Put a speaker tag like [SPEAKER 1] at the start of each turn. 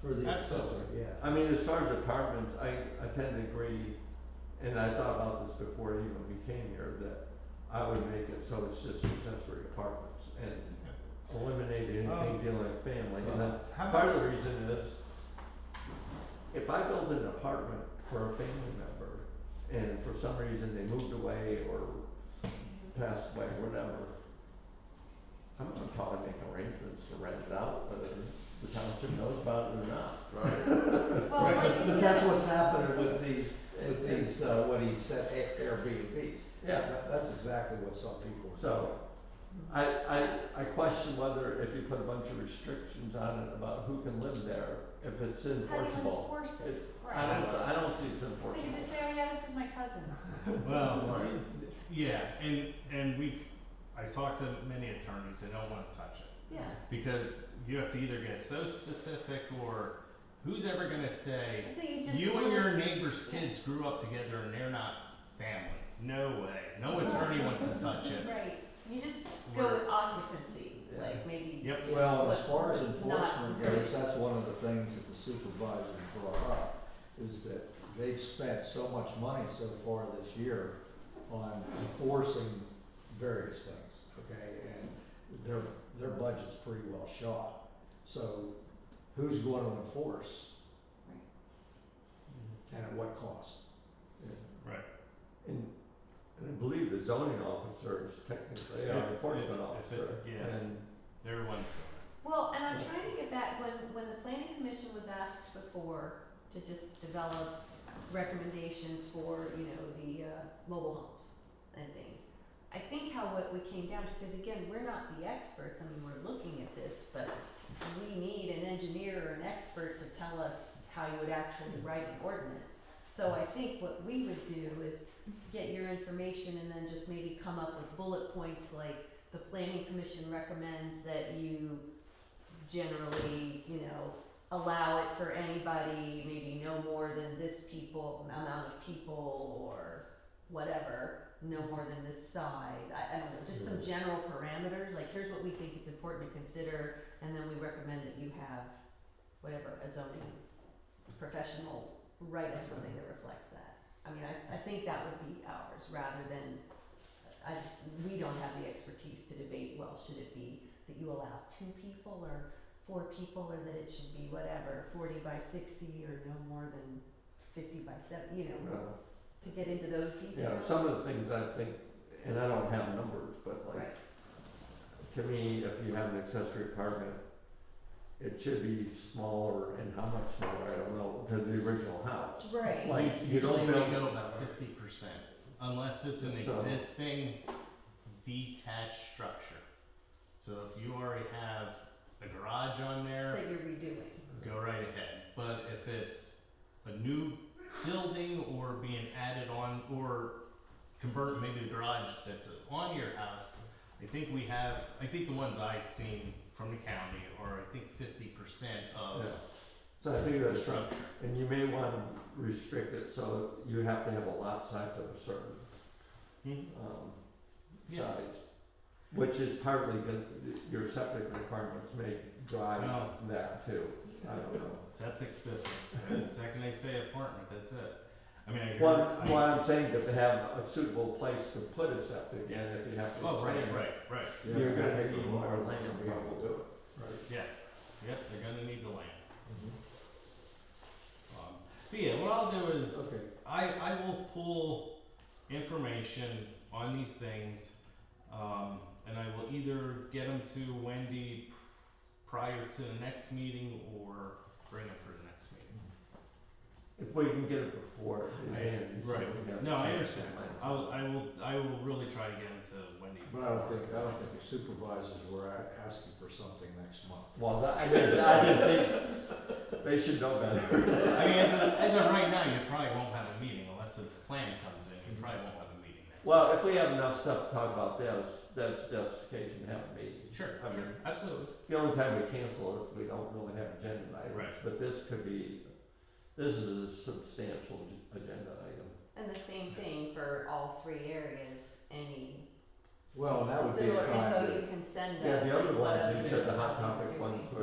[SPEAKER 1] for the accessory,
[SPEAKER 2] Absolutely.
[SPEAKER 1] yeah.
[SPEAKER 3] I mean, as far as apartments, I, I tend to agree, and I thought about this before even we came here, that I would make it so it's just accessory apartments and eliminate
[SPEAKER 2] Um,
[SPEAKER 3] anything dealing with family. And that-
[SPEAKER 2] How
[SPEAKER 3] part
[SPEAKER 2] about,
[SPEAKER 3] of the reason is, if I build an apartment for a family member, and for some reason they moved away or passed away, whatever, I'm gonna probably make arrangements to rent it out, whether the township knows about it or not.
[SPEAKER 1] Right,
[SPEAKER 4] Well,
[SPEAKER 1] right,
[SPEAKER 4] like
[SPEAKER 1] but,
[SPEAKER 4] you
[SPEAKER 1] but
[SPEAKER 4] said-
[SPEAKER 1] that's what's happening with these,
[SPEAKER 3] And-
[SPEAKER 1] with
[SPEAKER 3] and-
[SPEAKER 1] these, uh, what he said, Air- Airbnbs.
[SPEAKER 3] Yeah,
[SPEAKER 1] That, that's exactly what some people. are
[SPEAKER 3] So-
[SPEAKER 1] doing.
[SPEAKER 3] I, I, I question whether if you put a bunch of restrictions on it about who can live there, if it's
[SPEAKER 4] How do you
[SPEAKER 3] enforceable.
[SPEAKER 4] enforce it?
[SPEAKER 3] It's, I
[SPEAKER 4] Right.
[SPEAKER 3] don't, I don't see it's
[SPEAKER 4] They could just
[SPEAKER 3] enforceable.
[SPEAKER 4] say, oh yeah, this is my cousin.
[SPEAKER 2] well,
[SPEAKER 1] Right.
[SPEAKER 2] yeah, and, and we've, I've talked to many attorneys, they don't wanna touch it.
[SPEAKER 4] Yeah.
[SPEAKER 2] Because you have to either get so specific or who's ever gonna say,
[SPEAKER 4] I think you just.
[SPEAKER 2] you and
[SPEAKER 4] live-
[SPEAKER 2] your neighbor's kids grew up together and they're not family. No way, no attorney wants to touch it.
[SPEAKER 4] Right, you just go
[SPEAKER 2] We're-
[SPEAKER 4] with occupancy,
[SPEAKER 3] Yeah.
[SPEAKER 4] like maybe.
[SPEAKER 2] Yep.
[SPEAKER 4] you know,
[SPEAKER 1] Well, as
[SPEAKER 4] what-
[SPEAKER 1] far as
[SPEAKER 4] what's
[SPEAKER 1] enforcement
[SPEAKER 4] not-
[SPEAKER 1] goes, that's one of the things that the supervisor brought up, is that they've spent so much money so far this year on enforcing various things, okay, and their, their budget's pretty well shot. So who's going to enforce
[SPEAKER 3] Mm-hmm.
[SPEAKER 1] and at what cost?
[SPEAKER 3] And, and I believe the zoning officer is technically
[SPEAKER 2] If-
[SPEAKER 3] an
[SPEAKER 2] if-
[SPEAKER 3] enforcement
[SPEAKER 2] if it-
[SPEAKER 3] officer.
[SPEAKER 2] yeah.
[SPEAKER 3] And
[SPEAKER 2] Everyone's doing it.
[SPEAKER 4] Well, and I'm trying to get back, when, when the planning commission was asked before to just develop recommendations for, you know, the, uh, mobile homes and things. I think how what we came down to, because again, we're not the experts, I mean, we're looking at this, but we need an engineer or an expert to tell us how you would actually write an ordinance. So I think what we would do is get your information and then just maybe come up with bullet points like the planning commission recommends that you generally, you know, allow it for anybody, maybe no more than this people, amount of people or whatever, no more than this size. I, I don't know, just some general parameters, like here's what we think it's important to consider, and then we recommend that you have whatever, a zoning professional write up something that reflects that. I mean, I, I think that would be ours rather than, I just, we don't have the expertise to debate, well, should it be that you allow two people or four people or that it should be whatever, forty by sixty or no more than fifty by seventy, you know,
[SPEAKER 3] uh,
[SPEAKER 4] to get into those
[SPEAKER 3] You know,
[SPEAKER 4] details.
[SPEAKER 3] some of the things I think, and I don't have numbers, but like,
[SPEAKER 4] Right,
[SPEAKER 3] to me, if you have an accessory apartment, it should be smaller and how much smaller, I don't know, than the original house.
[SPEAKER 4] right,
[SPEAKER 3] Like, you
[SPEAKER 2] Usually
[SPEAKER 3] don't
[SPEAKER 2] we
[SPEAKER 3] build.
[SPEAKER 2] go about fifty percent, unless it's an
[SPEAKER 3] So-
[SPEAKER 2] existing detached structure. So if you already have a garage on there,
[SPEAKER 4] that you're redoing.
[SPEAKER 2] go right ahead. But if it's a new building or being added on or convert maybe the garage that's on your house, I think we have, I think the ones I've seen from the county are I think fifty percent of
[SPEAKER 3] Yeah. So I think
[SPEAKER 2] the
[SPEAKER 3] that's right.
[SPEAKER 2] structure.
[SPEAKER 3] And you may want to restrict it, so you have to have a lot size of a certain,
[SPEAKER 2] Mhm.
[SPEAKER 3] um,
[SPEAKER 2] Yeah.
[SPEAKER 3] size. Which is partly the, your septic requirements may drive
[SPEAKER 2] Well,
[SPEAKER 3] that too, I don't know.
[SPEAKER 2] Septic's different. The second they say apartment, that's it. I mean, I hear.
[SPEAKER 3] What,
[SPEAKER 2] I-
[SPEAKER 3] what I'm saying, that they have a suitable place to put a septic in, if you have to
[SPEAKER 2] Oh, right,
[SPEAKER 3] expand,
[SPEAKER 2] right, right.
[SPEAKER 3] you're gonna need more land to be able to do it.
[SPEAKER 1] Right.
[SPEAKER 2] Yes. Yep, they're gonna need the land.
[SPEAKER 1] Mhm.
[SPEAKER 2] Um, but yeah, what I'll do is
[SPEAKER 1] Okay,
[SPEAKER 2] I, I will pull information on these things, um, and I will either get them to Wendy prior to the next meeting or bring them for the next meeting.
[SPEAKER 1] Mm-hmm.
[SPEAKER 3] If we can get it before, it
[SPEAKER 2] I-
[SPEAKER 3] ends, so
[SPEAKER 2] right.
[SPEAKER 3] we got a
[SPEAKER 2] No, I
[SPEAKER 3] chance to
[SPEAKER 2] understand.
[SPEAKER 3] plan
[SPEAKER 2] I will, I will, I will really try to get them to Wendy.
[SPEAKER 1] but I don't think, I don't think the supervisors were a- asking for something next month.
[SPEAKER 3] Well, that- I didn't, I didn't think, they should know better.
[SPEAKER 2] I mean, as of, as of right now, you probably won't have a meeting unless the plan comes in. You probably won't have a meeting next.
[SPEAKER 3] Well, if we have enough stuff to talk about, that's, that's justification to have a meeting.
[SPEAKER 2] sure,
[SPEAKER 3] I
[SPEAKER 2] sure,
[SPEAKER 3] mean-
[SPEAKER 2] absolutely.
[SPEAKER 3] The only time we cancel is if we don't really have agenda items,
[SPEAKER 2] Right.
[SPEAKER 3] but this could be, this is a substantial ag- agenda item.
[SPEAKER 4] And the same thing for all three areas, any
[SPEAKER 1] Well, that would be a
[SPEAKER 4] similar
[SPEAKER 1] time
[SPEAKER 4] info
[SPEAKER 1] to-
[SPEAKER 4] you can send us.
[SPEAKER 3] Yeah, the
[SPEAKER 4] like
[SPEAKER 3] other
[SPEAKER 4] what
[SPEAKER 3] ones,
[SPEAKER 4] other
[SPEAKER 3] you said the hot
[SPEAKER 4] municipalities are
[SPEAKER 3] topic
[SPEAKER 4] doing.
[SPEAKER 3] ones were